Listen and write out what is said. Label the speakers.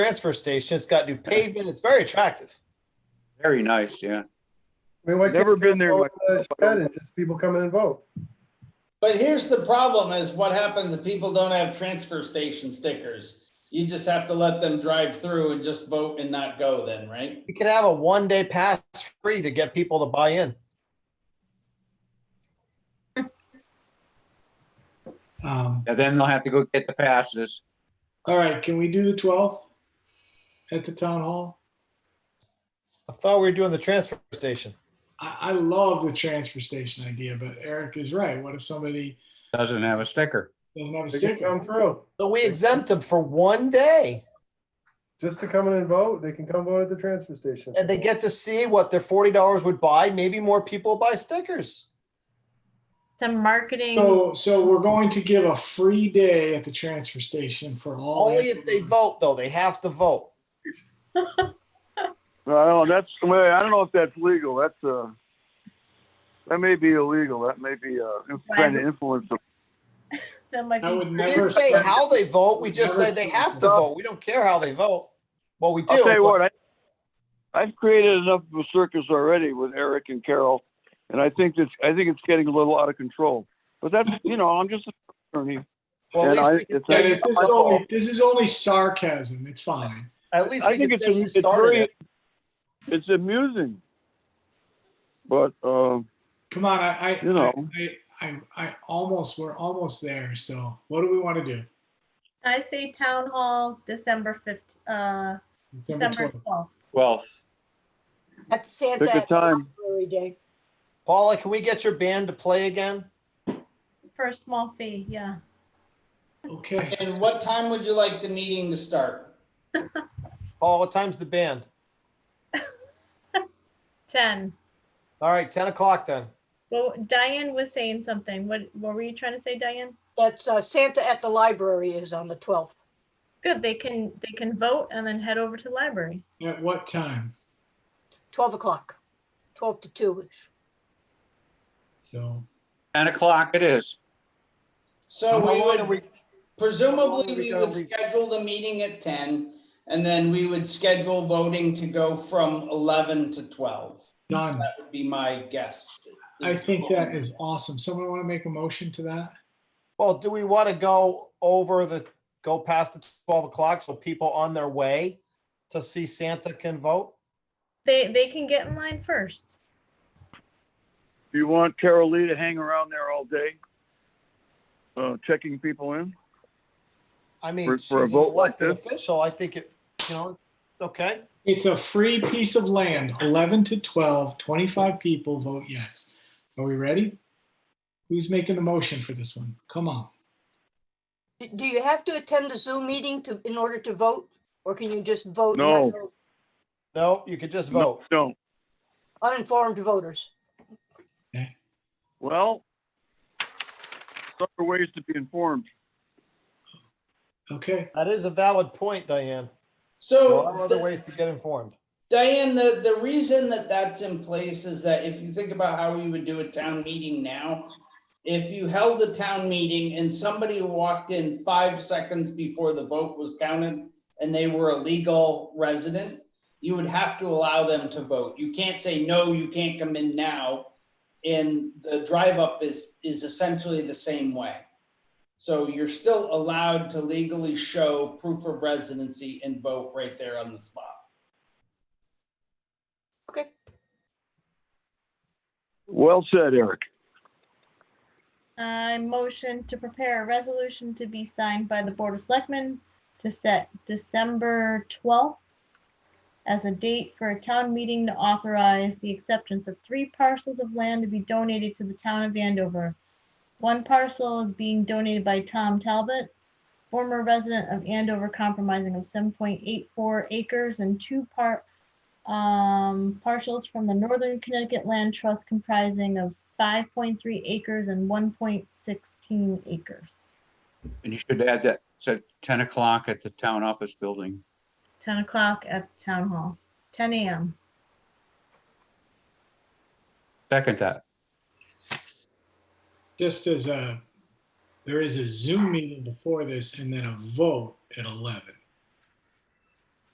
Speaker 1: transfer station. It's got new pavement. It's very attractive.
Speaker 2: Very nice, yeah.
Speaker 3: I mean, why can't
Speaker 4: Never been there
Speaker 3: you
Speaker 4: myself.
Speaker 3: vote, uh, Shannon, just people coming and vote?
Speaker 5: But here's the problem is what happens if people don't have transfer station stickers? You just have to let them drive through and just vote and not go then, right?
Speaker 1: We could have a one day pass free to get people to buy in.
Speaker 6: Um,
Speaker 2: And then they'll have to go get the passes.
Speaker 6: all right, can we do the twelfth at the town hall?
Speaker 1: I thought we were doing the transfer station.
Speaker 6: I, I love the transfer station idea, but Eric is right. What if somebody
Speaker 2: Doesn't have a sticker.
Speaker 6: doesn't have a
Speaker 3: They can come
Speaker 6: sticker?
Speaker 3: through,
Speaker 1: So we exempt them for one day
Speaker 3: just to come in and vote, they can come vote at the transfer station.
Speaker 1: and they get to see what their forty dollars would buy. Maybe more people buy stickers.
Speaker 7: Some marketing.
Speaker 6: So, so we're going to give a free day at the transfer station for all.
Speaker 1: Only if they vote though. They have to vote.
Speaker 8: Well, I don't know, that's, well, I don't know if that's legal, that's, uh, that may be illegal, that may be, uh, trying to influence the
Speaker 7: That might
Speaker 6: I would
Speaker 7: be.
Speaker 1: We
Speaker 6: never.
Speaker 1: didn't say
Speaker 6: spend-
Speaker 1: how they vote. We just
Speaker 6: Never
Speaker 1: say they have to vote. We don't care how they vote. Well, we do.
Speaker 8: I'll tell
Speaker 1: but-
Speaker 8: you what, I, I've created enough of a circus already with Eric and Carol, and I think that's, I think it's getting a little out of control. But that's, you know, I'm just an attorney.
Speaker 1: Well, at
Speaker 8: and I-
Speaker 1: least we
Speaker 8: it's-
Speaker 6: That is-
Speaker 1: can-
Speaker 6: This is only, this is only sarcasm. It's fine.
Speaker 1: at least
Speaker 8: I
Speaker 1: we
Speaker 8: think
Speaker 1: can
Speaker 8: it's,
Speaker 1: say we
Speaker 8: it's
Speaker 1: started
Speaker 8: very,
Speaker 1: it.
Speaker 8: it's amusing. But, uh,
Speaker 6: Come on, I, I,
Speaker 8: You know.
Speaker 6: I, I, I, I almost, we're almost there. So what do we want to do?
Speaker 7: I say town hall, December fifth, uh,
Speaker 6: December
Speaker 7: December
Speaker 6: 12th.
Speaker 7: twelfth.
Speaker 2: Well,
Speaker 9: At Santa.
Speaker 8: Pick a
Speaker 9: at the
Speaker 8: time.
Speaker 9: Library Day.
Speaker 1: Paula, can we get your band to play again?
Speaker 7: For a small fee, yeah.
Speaker 6: Okay.
Speaker 5: And what time would you like the meeting to start?
Speaker 1: Paul, what time's the band?
Speaker 7: Ten.
Speaker 1: All right, ten o'clock then.
Speaker 7: Well, Diane was saying something. What, what were you trying to say, Diane?
Speaker 9: That's uh, Santa at the library is on the 12th.
Speaker 7: Good, they can, they can vote and then head over to the library.
Speaker 6: At what time?
Speaker 9: 12 o'clock, 12 to 2 ish.
Speaker 6: So,
Speaker 2: ten o'clock it is.
Speaker 5: So
Speaker 1: How long
Speaker 5: we
Speaker 1: are
Speaker 5: would,
Speaker 1: we-
Speaker 5: presumably we would schedule the meeting at ten and then we would schedule voting to go from eleven to twelve.
Speaker 6: done.
Speaker 5: That would be my guess.
Speaker 6: I think that is awesome. Someone want to make a motion to that?
Speaker 1: Well, do we want to go over the, go past the twelve o'clock so people on their way to see Santa can vote?
Speaker 7: They, they can get in line first.
Speaker 8: do you want Carol Lee to hang around there all day? Uh, checking people in?
Speaker 1: I
Speaker 8: For-
Speaker 1: mean, she's
Speaker 8: for a
Speaker 1: an
Speaker 8: vote like
Speaker 1: elected
Speaker 8: this?
Speaker 1: official. I think it, you know, it's okay.
Speaker 6: It's a free piece of land, 11 to 12, 25 people vote yes. Are we ready? Who's making the motion for this one? Come on.
Speaker 9: Do- Do you have to attend the Zoom meeting to, in order to vote? Or can you just vote? and
Speaker 8: No.
Speaker 9: not vote?
Speaker 1: No, you could just
Speaker 8: No,
Speaker 1: vote.
Speaker 8: Don't.
Speaker 9: Uninformed voters.
Speaker 8: Well, there are ways to be informed.
Speaker 6: Okay.
Speaker 1: That is a valid point, Diane. There
Speaker 5: So.
Speaker 1: are
Speaker 5: the-
Speaker 1: other ways to get informed.
Speaker 5: Diane, the, the reason that that's in place is that if you think about how we would do a town meeting now, if you held the town meeting and somebody walked in five seconds before the vote was counted and they were a legal resident, you would have to allow them to vote. You can't say, no, you can't come in now. And the drive up is, is essentially the same way. So you're still allowed to legally show proof of residency and vote right there on the spot.
Speaker 9: Okay.
Speaker 8: Well said, Eric.
Speaker 7: I motion to prepare a resolution to be signed by the Board of Selectmen to set December twelfth as a date for a town meeting to authorize the acceptance of three parcels of land to be donated to the town of Andover. One parcel is being donated by Tom Talbot, former resident of Andover comprising of seven point eight four acres and two part um, parcels from the Northern Connecticut Land Trust comprising of 5.3 acres and 1.16 acres.
Speaker 2: And you should add that, it's at ten o'clock at the town office building.
Speaker 7: 10 o'clock at the town hall, 10 a.m.
Speaker 2: Second that.
Speaker 6: Just as a, there is a Zoom meeting before this and then a vote at 11.